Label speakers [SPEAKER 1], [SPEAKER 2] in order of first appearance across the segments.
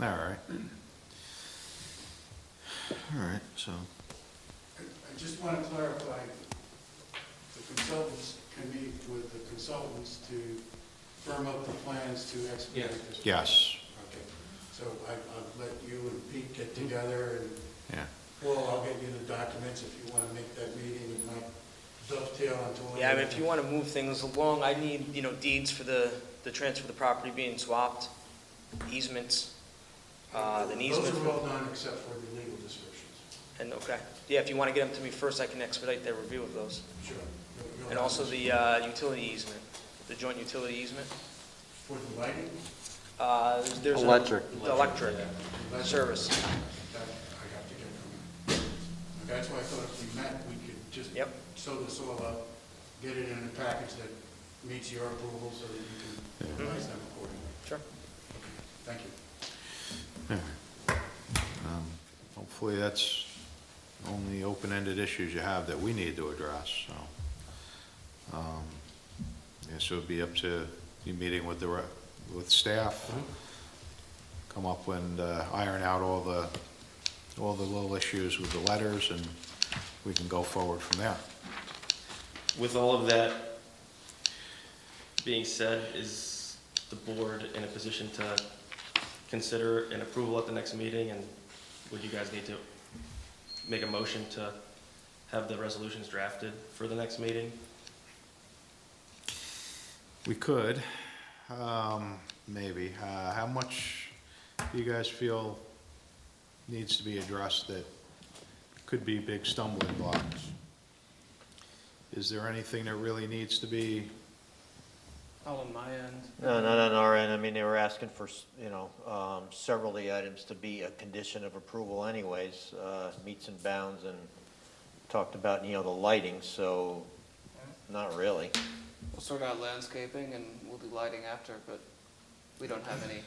[SPEAKER 1] All right. All right, so,
[SPEAKER 2] I I just want to clarify, the consultants can meet with the consultants to firm up the plans to expedite this.
[SPEAKER 1] yes,
[SPEAKER 2] Okay, so I, I'll let you and Pete get together and,
[SPEAKER 1] yeah.
[SPEAKER 2] well, I'll get you the documents if you want to make that meeting and might dovetail into. one
[SPEAKER 3] Yeah, I mean,
[SPEAKER 2] of
[SPEAKER 3] if
[SPEAKER 2] the-
[SPEAKER 3] you want to move things along, I need, you know, deeds for the, the transfer of the property being swapped, easements, uh, the easement,
[SPEAKER 2] Those are
[SPEAKER 3] for-
[SPEAKER 2] all done except for the legal descriptions.
[SPEAKER 3] and, okay. Yeah, if you want to get them to me first, I can expedite their review of those.
[SPEAKER 2] Sure. You'll- you'll
[SPEAKER 3] And also
[SPEAKER 2] have-
[SPEAKER 3] the, uh, utility easement, the joint utility easement.
[SPEAKER 2] For the lighting,
[SPEAKER 3] Uh, there's. a-
[SPEAKER 4] Electric.
[SPEAKER 3] the Electric
[SPEAKER 2] Electric.
[SPEAKER 3] service.
[SPEAKER 2] that I have to get from you. That's why I thought if we met, we could just.
[SPEAKER 3] Yep.
[SPEAKER 2] Sew this all up, get it in a package that meets your approval so that you can advise them accordingly.
[SPEAKER 3] Sure.
[SPEAKER 2] Thank you.
[SPEAKER 1] Um, Hopefully, that's the only open-ended issues you have that we need to address, so. um, Yeah, so it'd be up to you meeting with the, re- with staff, come up and uh, iron out all the, all the little issues with the letters, and we can go forward from there.
[SPEAKER 4] With all of that being said, is the board in a position to consider an approval at the next meeting? And would you guys need to make a motion to have the resolutions drafted for the next meeting?
[SPEAKER 1] We could, um, maybe. Uh, how much do you guys feel needs to be addressed that could be big stumbling blocks? Is there anything that really needs to be,
[SPEAKER 3] Oh, on my end.
[SPEAKER 5] No, not on our end. I mean, they were asking for, s- you know, um, several of the items to be a condition of approval anyways, uh, meets and bounds and talked about, you know, the lighting, so not really.
[SPEAKER 6] We'll sort out landscaping and we'll do lighting after, but we don't have any,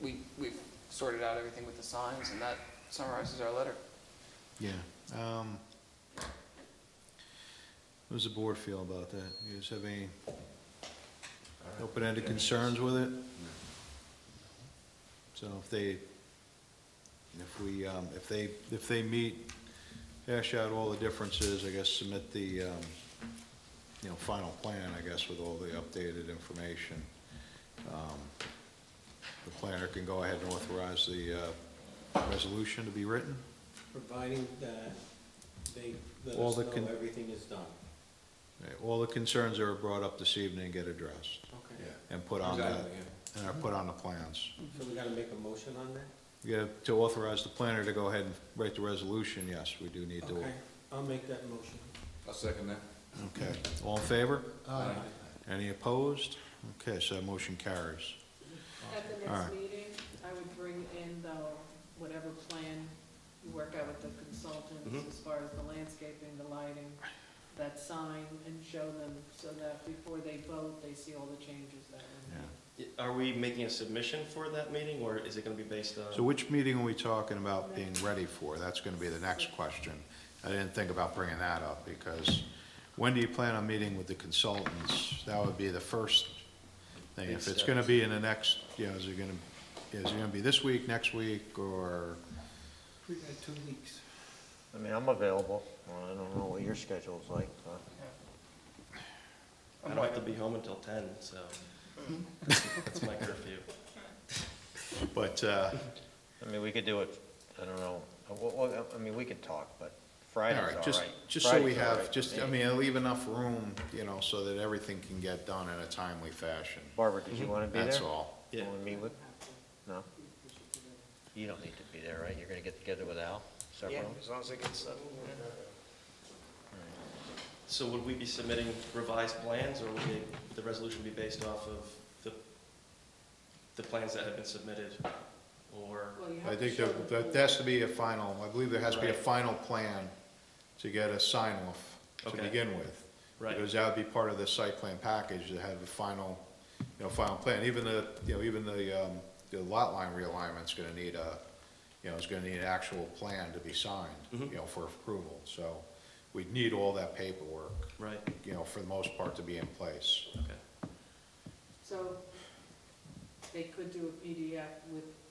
[SPEAKER 6] we, we've sorted out everything with the signs and that summarizes our letter.
[SPEAKER 1] yeah, um, what does the board feel about that? You guys have any open-ended concerns with it? So if they, if we, um, if they, if they meet, hash out all the differences, I guess submit the, um, you know, final plan, I guess, with all the updated information. Um, The planner can go ahead and authorize the, uh, resolution to be written?
[SPEAKER 7] Providing that they let
[SPEAKER 1] All
[SPEAKER 7] us
[SPEAKER 1] the
[SPEAKER 7] know
[SPEAKER 1] con-
[SPEAKER 7] everything is done.
[SPEAKER 1] Right, All the concerns that were brought up this evening get addressed
[SPEAKER 7] Okay.
[SPEAKER 2] Yeah.
[SPEAKER 1] and put on the,
[SPEAKER 7] Exactly,
[SPEAKER 1] and are put on the plans.
[SPEAKER 7] So we gotta make a motion on that?
[SPEAKER 1] You got to authorize the planner to go ahead and write the resolution, yes, we do need to.
[SPEAKER 7] Okay, I'll make that motion.
[SPEAKER 8] I'll second that.
[SPEAKER 1] Okay, all in favor?
[SPEAKER 7] Aye.
[SPEAKER 1] Any opposed? Okay, so that motion carries.
[SPEAKER 9] At the
[SPEAKER 1] All right.
[SPEAKER 9] next meeting, I would bring in the, whatever plan you work out with the consultants as far as the landscaping, the lighting, that sign, and show them so that before they vote, they see all the changes that
[SPEAKER 1] Yeah.
[SPEAKER 9] are
[SPEAKER 4] Are we making a submission for that meeting, or is it gonna be based on?
[SPEAKER 1] So which meeting are we talking about being ready for? That's gonna be the next question. I didn't think about bringing that up, because when do you plan on meeting with the consultants? That would be the first thing. If it's gonna be in the next, you know, is it gonna, is it gonna be this week, next week, or?
[SPEAKER 7] We got two weeks.
[SPEAKER 5] I mean, I'm available. Well, I don't know what your schedule's like, but.
[SPEAKER 4] I don't have to be home until ten, so that's my curfew.
[SPEAKER 1] But, uh,
[SPEAKER 5] I mean, we could do it, I don't know, Uh, what, what, I mean, we could talk,
[SPEAKER 1] all
[SPEAKER 5] but Friday's all
[SPEAKER 1] right,
[SPEAKER 5] right.
[SPEAKER 1] just, just so we
[SPEAKER 5] Friday's all
[SPEAKER 1] have,
[SPEAKER 5] right.
[SPEAKER 1] just, I mean, I'll leave enough room, you know, so that everything can get done in a timely fashion.
[SPEAKER 5] Barbara, did you wanna be there?
[SPEAKER 1] Mm-hmm. That's all.
[SPEAKER 4] Yeah.
[SPEAKER 5] Wanna meet with, no? You don't need to be there, right? You're gonna get together with Al, several?
[SPEAKER 3] Yeah, as long as it gets, uh, yeah.
[SPEAKER 4] So would we be submitting revised plans, or would they- the resolution be based off of the, the plans that have been submitted? Or,
[SPEAKER 9] in. Well, you
[SPEAKER 1] I
[SPEAKER 9] have to
[SPEAKER 1] think
[SPEAKER 9] show
[SPEAKER 1] that,
[SPEAKER 9] them
[SPEAKER 1] that has to be a final, I believe there has to be a
[SPEAKER 4] Right.
[SPEAKER 1] final plan to get a sign off to
[SPEAKER 4] Okay.
[SPEAKER 1] begin with.
[SPEAKER 4] right,
[SPEAKER 1] Because that would be part of the site plan package, to have the final, you know, final plan, even the, you know, even the, um, the lot line realignment's gonna need a, you know, is gonna need an actual plan to be signed, you
[SPEAKER 4] Mm-hmm.
[SPEAKER 1] know, for approval, so we'd need all that paperwork,
[SPEAKER 4] right,
[SPEAKER 1] you know, for the most part, to be in place.
[SPEAKER 4] okay.
[SPEAKER 9] So they could do a PDF with